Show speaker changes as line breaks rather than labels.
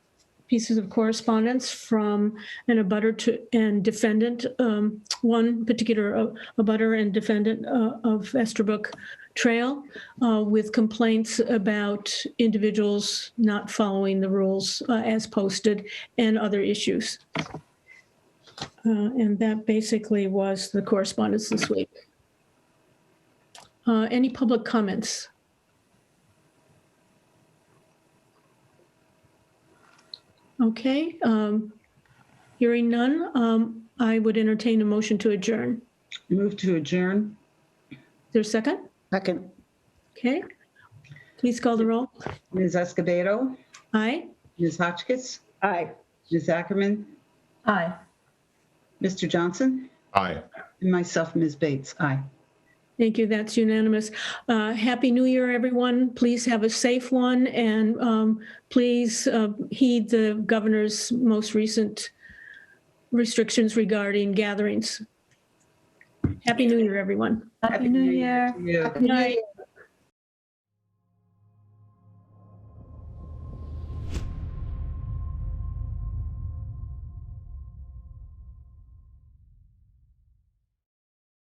pieces of correspondence from an abutter to, and defendant, um, one particular uh, abutter and defendant uh, of Estabrook Trail uh, with complaints about individuals not following the rules uh, as posted and other issues. Uh, And that basically was the correspondence this week. Uh, Any public comments? Okay. um, Hearing none, um, I would entertain a motion to adjourn.
Move to adjourn.
Is there a second?
Second,
Okay. Please call the roll.
Ms. Escobedo,
Aye.
Ms. Hotchkiss,
aye.
Ms. Ackerman,
Aye.
Mr. Johnson,
Aye.
and myself, Ms. Bates. Aye.
Thank you. That's unanimous. Uh, Happy New Year, everyone. Please have a safe one and um, please uh, heed the governor's most recent restrictions regarding gatherings. Happy New Year, everyone.
Happy New Year.
to you.
Good night.